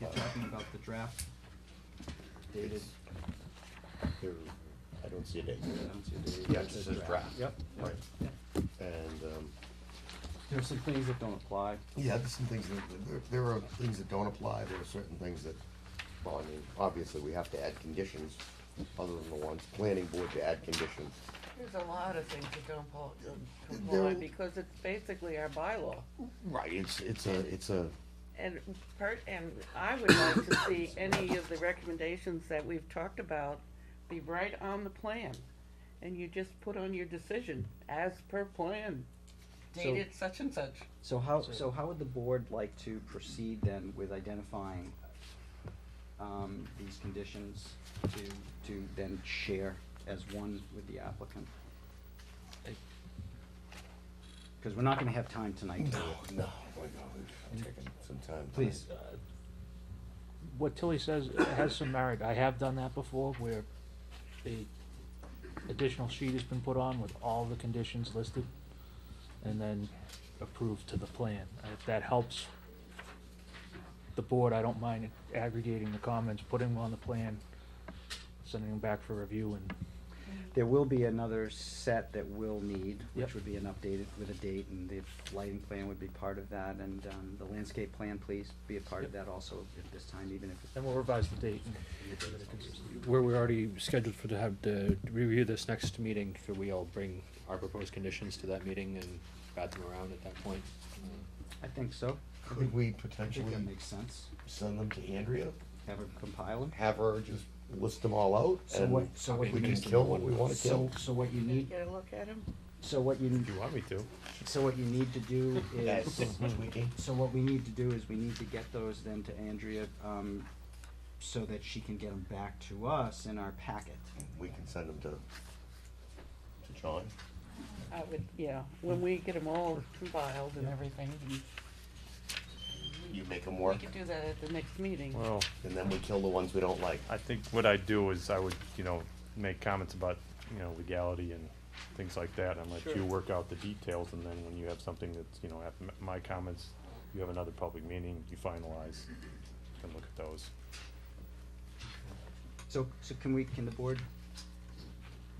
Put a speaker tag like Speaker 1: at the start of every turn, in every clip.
Speaker 1: talking about the draft dated, um,
Speaker 2: There, I don't see a date.
Speaker 1: I don't see a date.
Speaker 2: Yeah,
Speaker 1: It
Speaker 2: it just says draft. Yep. Right,
Speaker 1: Yeah.
Speaker 2: and, um,
Speaker 1: There are some things that don't apply.
Speaker 2: yeah, there's some things that, there, there are things that don't apply, there are certain things that, well, I mean, obviously, we have to add conditions, other than the ones, planning board to add conditions.
Speaker 3: There's a lot of things that don't pol- don't
Speaker 2: There-
Speaker 3: comply, because it's basically our bylaw.
Speaker 2: Right, it's, it's a, it's a,
Speaker 3: And part, and I would like to see any of the recommendations that we've talked about be right on the plan. And you just put on your decision, as per plan, dated such and such.
Speaker 1: So how, so how would the board like to proceed then with identifying, um, these conditions to, to then share as one with the applicant? Cause we're not gonna have time tonight to.
Speaker 2: no, no, my God, we've taken some time.
Speaker 1: Please.
Speaker 4: what Tilly says has some merit. I have done that before where a additional sheet has been put on with all the conditions listed and then approved to the plan. And If that helps the board, I don't mind aggregating the comments, putting them on the plan, sending them back for review and
Speaker 1: There will be another set that we'll need, which
Speaker 4: Yep.
Speaker 1: would be an updated with a date, and the lighting plan would be part of that, and, um, the landscape plan, please, be a part of that also at this time, even if it's.
Speaker 4: then we'll revise the date.
Speaker 5: Where we're already scheduled for to have to review this next meeting, could we all bring our proposed conditions to that meeting and bat them around at that point?
Speaker 1: I think so. I
Speaker 2: Could
Speaker 1: think-
Speaker 2: we
Speaker 1: I think
Speaker 2: potentially
Speaker 1: that makes sense.
Speaker 2: send them to Andrea,
Speaker 1: Have her compile them.
Speaker 2: have her just list them all out,
Speaker 1: So
Speaker 2: and
Speaker 1: what- so what
Speaker 2: we
Speaker 1: you
Speaker 2: can
Speaker 1: need-
Speaker 2: kill what we wanna
Speaker 1: So,
Speaker 2: kill?
Speaker 1: so what you
Speaker 3: You
Speaker 1: need,
Speaker 3: get a look at them?
Speaker 1: so what you,
Speaker 5: If you want me to.
Speaker 1: so what you need to do is,
Speaker 2: Tweaking.
Speaker 1: so what we need to do is we need to get those then to Andrea, um, so that she can get them back to us in our packet.
Speaker 2: We can send them to, to John.
Speaker 3: I would, yeah, when we get them all compiled and everything, and
Speaker 2: You make them
Speaker 3: we
Speaker 2: work,
Speaker 3: could do that at the next meeting.
Speaker 6: Well,
Speaker 2: and then we kill the ones we don't like.
Speaker 6: I think what I'd do is I would, you know, make comments about, you know, legality and things like that, and let
Speaker 3: Sure.
Speaker 6: you work out the details, and then when you have something that's, you know, at m- my comments, you have another public meeting, you finalize, and look at those.
Speaker 1: So, so can we, can the board,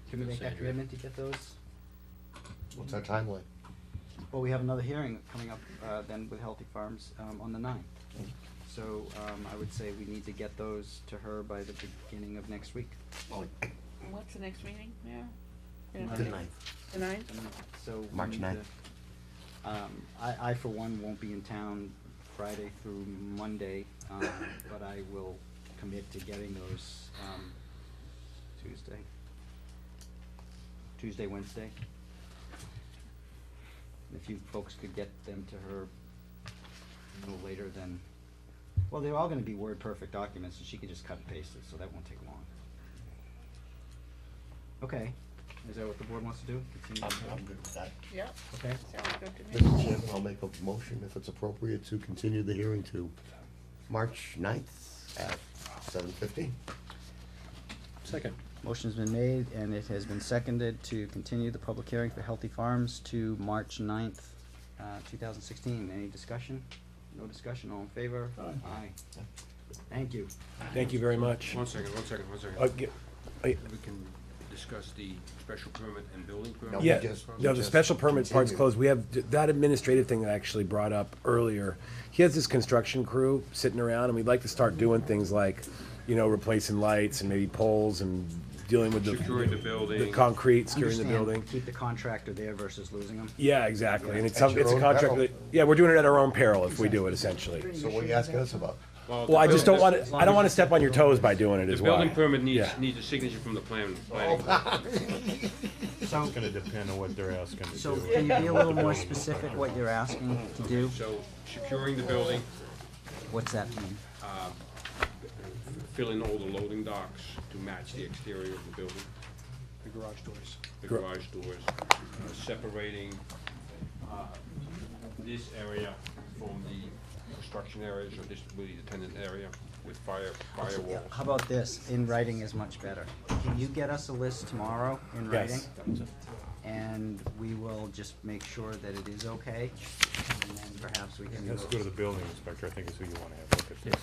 Speaker 1: can we make that
Speaker 5: Sandra.
Speaker 1: commitment to get those?
Speaker 2: What's our timeline?
Speaker 1: Well, we have another hearing coming up, uh, then with Healthy Farms, um, on the ninth. So, um, I would say we need to get those to her by the beginning of next week.
Speaker 3: What's the next meeting, yeah?
Speaker 1: Monday.
Speaker 2: The
Speaker 1: Okay.
Speaker 2: ninth.
Speaker 3: The ninth?
Speaker 1: And So. we
Speaker 2: March
Speaker 1: need
Speaker 2: 9th.
Speaker 1: to- Um, I, I for one won't be in town Friday through Monday, um, but I will commit to getting those, um, Tuesday. Tuesday, Wednesday. If you folks could get them to her a little later than, well, they're all gonna be word perfect documents, and she can just cut and paste it, so that won't take long. Okay, is that what the board wants to do? Continue?
Speaker 2: I'm, I'm good with that.
Speaker 3: Yep,
Speaker 1: Okay,
Speaker 3: sounds good to me.
Speaker 2: Mr. Chairman, I'll make a motion if it's appropriate to continue the hearing to March ninth at seven fifteen.
Speaker 5: Second.
Speaker 1: motion's been made and it has been seconded to continue the public hearing for Healthy Farms to March ninth, uh, two thousand sixteen. Any discussion? No discussion, all in favor? Aye. Thank you.
Speaker 5: Thank you very much.
Speaker 7: One second, one second, one
Speaker 5: Uh,
Speaker 7: second.
Speaker 5: g-
Speaker 7: We can discuss the special permit and building
Speaker 2: No,
Speaker 7: permit?
Speaker 2: we
Speaker 8: Yeah,
Speaker 2: just-
Speaker 8: no,
Speaker 2: we
Speaker 8: the
Speaker 2: just
Speaker 8: special permit part's
Speaker 2: continue.
Speaker 8: closed. We have th- that administrative thing that I actually brought up earlier. He has this construction crew sitting around, and we'd like to start doing things like, you know, replacing lights and maybe poles and dealing with the.
Speaker 7: Securing the building.
Speaker 8: The concrete, securing the
Speaker 1: Understand,
Speaker 8: building.
Speaker 1: Keep the contractor there versus losing them.
Speaker 8: Yeah, exactly. And it's,
Speaker 2: At
Speaker 8: some-
Speaker 2: your
Speaker 8: it's a
Speaker 2: own
Speaker 8: contract
Speaker 2: peril.
Speaker 8: that, yeah, we're doing it at our own peril if we do it essentially.
Speaker 2: So what are you asking us about?
Speaker 8: Well, I just don't want
Speaker 1: as
Speaker 8: to,
Speaker 1: long
Speaker 8: I
Speaker 1: as
Speaker 8: don't want to
Speaker 1: it's-
Speaker 8: step on your toes by doing it
Speaker 7: The
Speaker 8: as well.
Speaker 7: building permit needs,
Speaker 8: Yeah.
Speaker 7: needs a signature from the plan, planning. board.
Speaker 1: So,
Speaker 6: It's gonna depend on what they're asking to
Speaker 1: so
Speaker 6: do.
Speaker 1: can you be a little more specific what you're asking to do?
Speaker 7: So securing the building,
Speaker 1: What's that mean?
Speaker 7: filling all the loading docks to match the exterior of the building. The garage doors. The
Speaker 8: Gar-
Speaker 7: garage doors, uh, separating uh, this area from the construction areas, or this will be the tenant area with fire,
Speaker 1: Yeah,
Speaker 7: firewalls.
Speaker 1: How about this? In writing is much better. Can you get us a list tomorrow in writing?
Speaker 8: Yes.
Speaker 1: And we will just make sure that it is okay, and then perhaps we can.
Speaker 6: Let's go to the building inspector, I think is who you wanna have look at this.